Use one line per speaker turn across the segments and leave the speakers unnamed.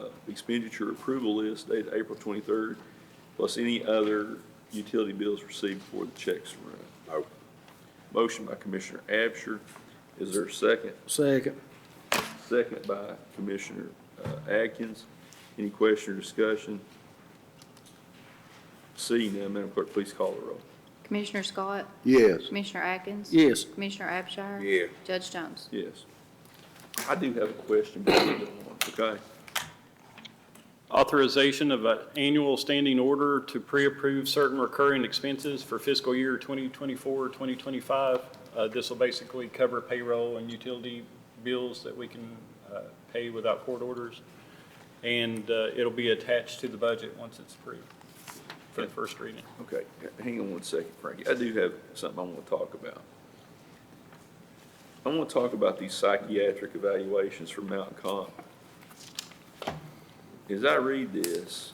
uh, expenditure approval list dated April 23rd, plus any other utility bills received before the checks were run.
Move.
Motion by Commissioner Absher. Is there a second?
Second.
Second by Commissioner uh, Atkins. Any question or discussion? Seeing none, Madam Clerk, please call the roll.
Commissioner Scott?
Yes.
Commissioner Atkins?
Yes.
Commissioner Abshire?
Yeah.
Judge Jones?
Yes. I do have a question, but I don't want- okay?
Authorization of an annual standing order to pre-approve certain recurring expenses for fiscal year 2024, 2025. Uh, This will basically cover payroll and utility bills that we can uh, pay without court orders. And uh, it'll be attached to the budget once it's approved for the first reading.
Okay, h- hang on one second, Frankie. I do have something I want to talk about. I want to talk about these psychiatric evaluations for Mountain Comp. As I read this,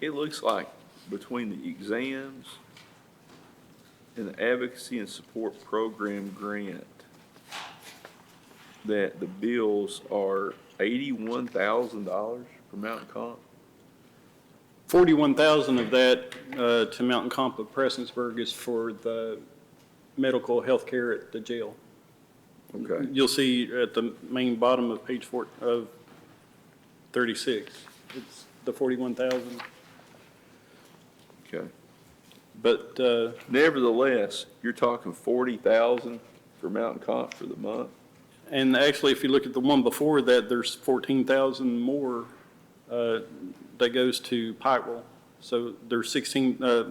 it looks like between the exams and the advocacy and support program grant, that the bills are eighty-one thousand dollars for Mountain Comp?
41,000 of that uh, to Mountain Comp of Prestonsburg is for the medical health care at the jail.
Okay,
You'll see at the main bottom of page four, of 36, it's the 41,000.
okay.
But uh,
Nevertheless, you're talking forty thousand for Mountain Comp for the month?
And actually, if you look at the one before that, there's fourteen thousand more uh, that goes to Pikeville. So there's sixteen, uh,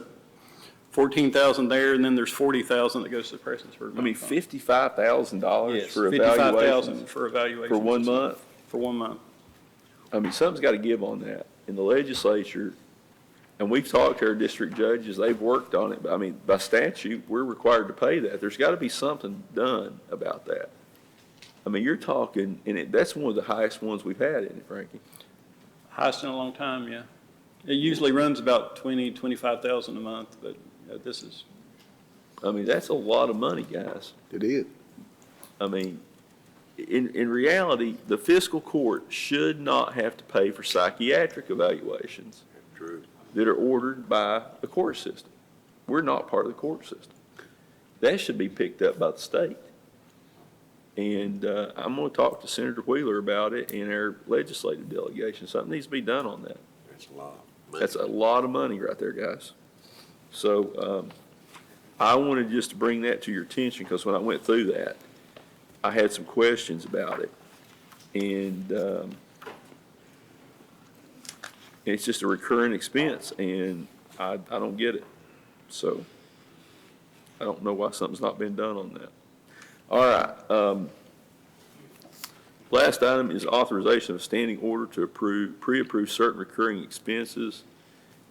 fourteen thousand there, and then there's forty thousand that goes to Prestonsburg.
I mean,
Mountain Farm.
fifty-five thousand dollars
Yes,
for
fifty-five
evaluations
thousand for evaluation.
for one month?
For one month.
I mean, something's got to give on that. In the legislature, and we've talked to our district judges, they've worked on it, but I mean, by statute, we're required to pay that. There's got to be something done about that. I mean, you're talking, and it, that's one of the highest ones we've had, isn't it, Frankie?
Highest in a long time, yeah. It usually runs about twenty, twenty-five thousand a month, but uh, this is,
I mean, that's a lot of money, guys.
It is.
I mean, in, in reality, the fiscal court should not have to pay for psychiatric evaluations
True.
that are ordered by the court system. We're not part of the court system. That should be picked up by the state. And uh, I'm going to talk to Senator Wheeler about it in our legislative delegation. Something needs to be done on that.
That's a lot.
That's a lot of money right there, guys. So um, I wanted just to bring that to your attention, because when I went through that, I had some questions about it. And um, it's just a recurring expense, and I, I don't get it. So I don't know why something's not been done on that. All right. um, Last item is authorization of standing order to approve, pre-approve certain recurring expenses.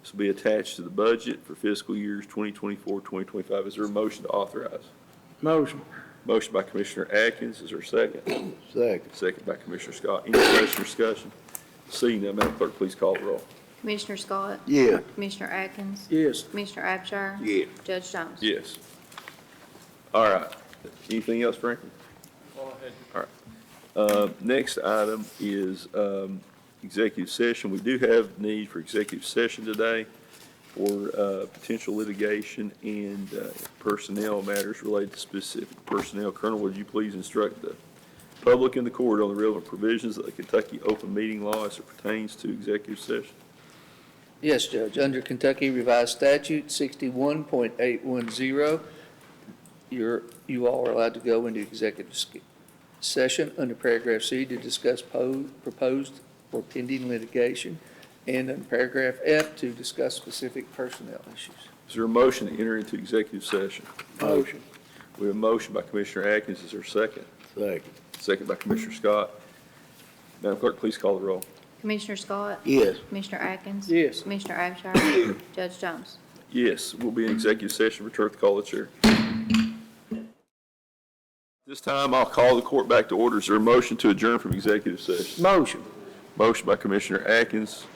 This will be attached to the budget for fiscal years 2024, 2025. Is there a motion to authorize?
Motion.
Motion by Commissioner Atkins, is there a second?
Second.
Second by Commissioner Scott. Any question or discussion? Seeing none, Madam Clerk, please call the roll.
Commissioner Scott?
Yeah.
Commissioner Atkins?
Yes.
Commissioner Abshire?
Yeah.
Judge Jones?
Yes. All right. Anything else, Franklin? Uh, Next item is um, executive session. We do have need for executive session today for uh, potential litigation and uh, personnel matters related to specific personnel. Colonel, would you please instruct the public and the court on the relevant provisions of the Kentucky open meeting law as it pertains to executive session?
Yes, Judge. Under Kentucky Revised Statute sixty-one point eight one zero, you're, you all are allowed to go into executive sk- session under paragraph C to discuss po- proposed or pending litigation, and under paragraph F to discuss specific personnel issues.
Is there a motion to enter into executive session?
Motion.
We have a motion by Commissioner Atkins. Is there a second?
Second.
Second by Commissioner Scott. Madam Clerk, please call the roll.
Commissioner Scott?
Yes.
Commissioner Atkins?
Yes.
Commissioner Abshire? Judge Jones?
Yes, we'll be in executive session. Return to the call of the chair. This time, I'll call the court back to order. Is there a motion to adjourn from executive session?
Motion.
Motion by Commissioner Atkins,